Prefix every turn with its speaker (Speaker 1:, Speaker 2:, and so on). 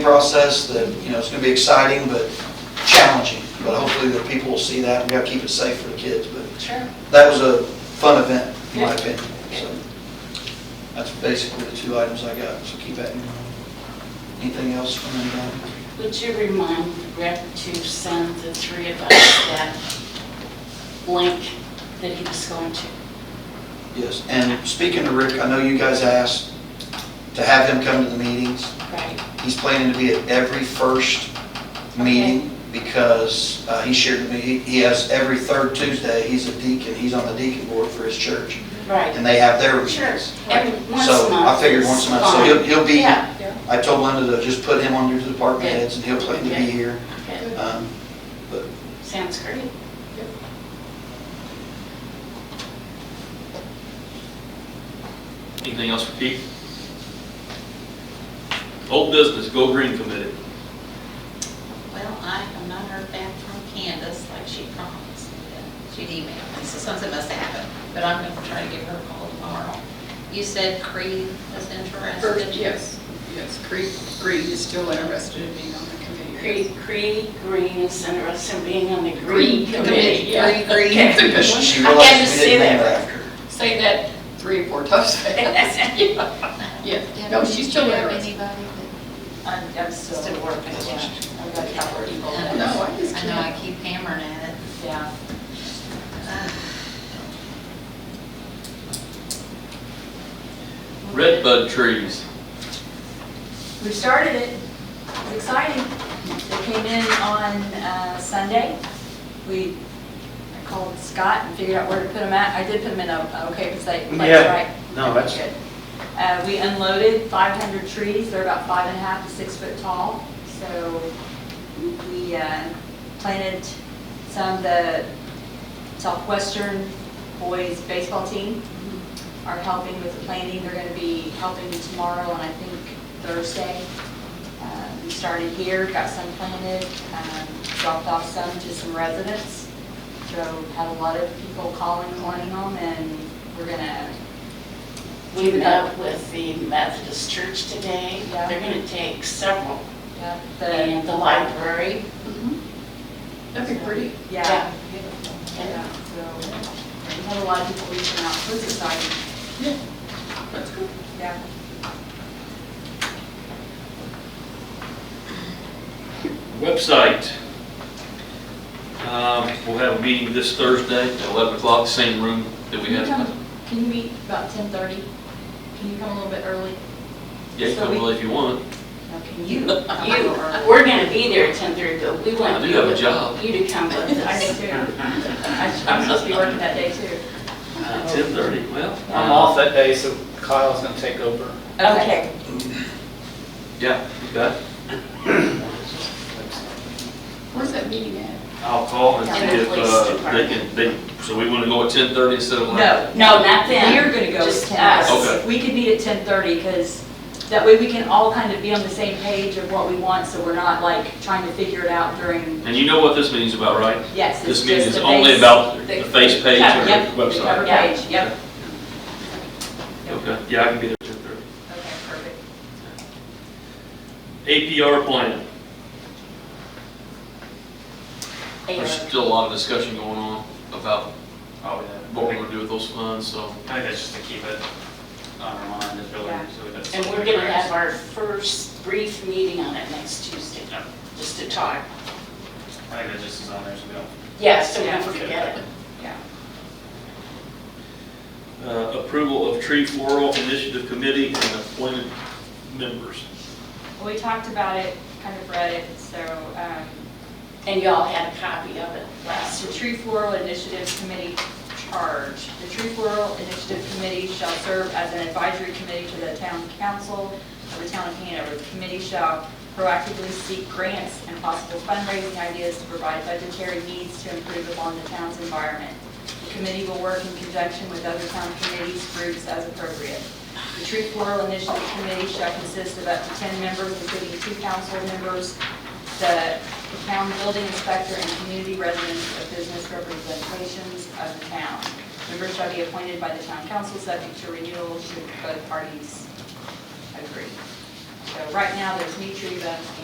Speaker 1: process that, you know, it's going to be exciting, but challenging. But hopefully the people will see that, and we got to keep it safe for the kids. But
Speaker 2: Sure.
Speaker 1: that was a fun event, in my
Speaker 2: Yeah.
Speaker 1: opinion. So that's basically the two items I got, so keep that in mind. Anything else from anybody?
Speaker 2: Would you remind Rick to send the three of us that link that he was going to?
Speaker 1: Yes, and speaking to Rick, I know you guys asked to have him come to the meetings.
Speaker 2: Right.
Speaker 1: He's planning to be at every first meeting because uh, he shared with me, he- he has every third Tuesday, he's a deacon, he's on the deacon board for his church.
Speaker 2: Right.
Speaker 1: and they have their
Speaker 2: Sure.
Speaker 1: meetings.
Speaker 2: Every once a
Speaker 1: So
Speaker 2: month.
Speaker 1: I figured once a month, so
Speaker 2: Fine.
Speaker 1: he'll, he'll be,
Speaker 2: Yeah.
Speaker 1: I told Linda to just put him on your department
Speaker 2: Good.
Speaker 1: heads and he'll plan to be
Speaker 2: Good.
Speaker 1: here.
Speaker 2: Good.
Speaker 1: Um, But
Speaker 2: Sounds great.
Speaker 3: Anything else for Pete? Old business, Go Green Committee.
Speaker 4: Well, I have not heard back from Candace like she promised. She'd email me, so something must have happened, but I'm gonna try to give her a call tomorrow. You said Creed was
Speaker 5: First,
Speaker 4: interested?
Speaker 5: yes, yes, Creed, Creed is still interested in being on the committee.
Speaker 2: Cree, Cree Green is interested in being on the Green
Speaker 5: Green
Speaker 2: Committee.
Speaker 5: Committee,
Speaker 2: Yeah.
Speaker 4: Creed, Creed.
Speaker 2: Okay.
Speaker 5: It's a good one.
Speaker 1: she
Speaker 2: I had to
Speaker 1: realized we
Speaker 2: say
Speaker 1: didn't name
Speaker 2: that.
Speaker 1: her after. her.
Speaker 5: Say that three or four times fast. Yeah, no, she's still interested.
Speaker 2: I'm, I'm still working, yeah. I've got a couple of people.
Speaker 4: Uh,
Speaker 2: that-
Speaker 5: No, I just
Speaker 4: I know, I
Speaker 5: can't.
Speaker 4: keep hammering at it.
Speaker 2: Yeah.
Speaker 3: Red bud trees.
Speaker 6: We started it, it's exciting. They came in on uh, Sunday. We, I called Scott and figured out where to put them at. I did put them in a, okay, because they, that's
Speaker 7: Yeah.
Speaker 6: right.
Speaker 7: No, that's-
Speaker 6: Good. Uh, We unloaded 500 trees, they're about five and a half to six foot tall. So we uh, planted some, the Southwestern boys baseball team
Speaker 7: Mm-hmm.
Speaker 6: are helping with the planting. They're going to be helping tomorrow and I think Thursday. Um, We started here, got some planted, um, dropped off some to some residents. So had a lot of people calling, wanting them, and we're going to
Speaker 2: We met with the Methodist Church today.
Speaker 6: Yeah.
Speaker 2: They're going to take several.
Speaker 6: Yeah,
Speaker 2: And
Speaker 6: the,
Speaker 2: the library.
Speaker 5: Mm-hmm. That'd be pretty.
Speaker 6: yeah,
Speaker 2: And
Speaker 6: yeah, so, we had a lot of people reaching out, so it's exciting,
Speaker 5: That's good.
Speaker 6: yeah.
Speaker 3: Website. Um, We'll have a meeting this Thursday at 11 o'clock, same room that we
Speaker 6: Can you
Speaker 3: had.
Speaker 6: come, can you meet about ten thirty? Can you come a little bit early?
Speaker 3: Yeah,
Speaker 6: so
Speaker 3: come
Speaker 6: we-
Speaker 3: early if you want.
Speaker 6: No, can you? come a
Speaker 2: You,
Speaker 6: little early?
Speaker 2: we're gonna be there at ten thirty, but we want
Speaker 3: I do
Speaker 2: you,
Speaker 3: have a
Speaker 2: to-
Speaker 3: job.
Speaker 2: you to come with
Speaker 6: I do
Speaker 2: us.
Speaker 6: too. I should- I'm supposed to be working that day too. Oh.
Speaker 3: 10:30, well.
Speaker 7: I'm off that day, so Kyle's gonna take over.
Speaker 6: Okay.
Speaker 3: Yeah, you bet.
Speaker 5: Where's that meeting at?
Speaker 3: I'll call and
Speaker 2: Yeah,
Speaker 3: see
Speaker 2: the
Speaker 3: if
Speaker 2: police
Speaker 3: uh, they
Speaker 2: department.
Speaker 3: can, they, so we want to go at 10:30 instead of 11?
Speaker 6: No,
Speaker 2: No, not them.
Speaker 6: we're gonna go with
Speaker 2: Just
Speaker 6: ten.
Speaker 2: us.
Speaker 3: Okay.
Speaker 6: We could meet at ten thirty, because that way we can all kind of be on the same page of what we want, so we're not like trying to figure it out during,
Speaker 3: And you know what this meeting's about, right?
Speaker 6: yes, it's
Speaker 3: This meeting
Speaker 6: just
Speaker 3: is
Speaker 6: the
Speaker 3: only
Speaker 6: base-
Speaker 3: about the face page
Speaker 6: Yeah,
Speaker 3: or
Speaker 6: yep,
Speaker 3: the
Speaker 6: the
Speaker 3: website.
Speaker 6: cover page, yep.
Speaker 3: Okay, yeah, I can be there at 10:30.
Speaker 6: Okay, perfect.
Speaker 3: APR plan.
Speaker 2: They
Speaker 3: There's
Speaker 2: are-
Speaker 3: still a lot of discussion going on about
Speaker 8: Oh,
Speaker 3: what we're
Speaker 8: yeah.
Speaker 3: gonna do with those funds, so.
Speaker 8: I think that's just to keep it on our mind, is really,
Speaker 6: Yeah.
Speaker 8: so that's.
Speaker 2: And we're gonna have our first brief meeting on it next Tuesday, just to talk.
Speaker 8: I think that just is on there, so we don't
Speaker 2: Yeah, so we don't
Speaker 8: Yeah.
Speaker 2: forget it.
Speaker 3: Uh, approval of tree floral initiative committee and appointed members.
Speaker 6: Well, we talked about it, kind of read it, so, um,
Speaker 2: And y'all had a copy of it last
Speaker 6: the
Speaker 2: week.
Speaker 6: Tree Floral Initiative Committee charge. The Tree Floral Initiative Committee shall serve as an advisory committee to the town council of the town of Hanover. The committee shall proactively seek grants and possible fundraising ideas to provide budgetary needs to improve upon the town's environment. The committee will work in conjunction with other town committees, groups as appropriate. The Tree Floral Initiative Committee shall consist of up to 10 members, including two council members, the town building inspector, and community residents of business representations of the town. Members shall be appointed by the town council, subject to renewal should both parties agree. So right now, there's Mead Tree Bus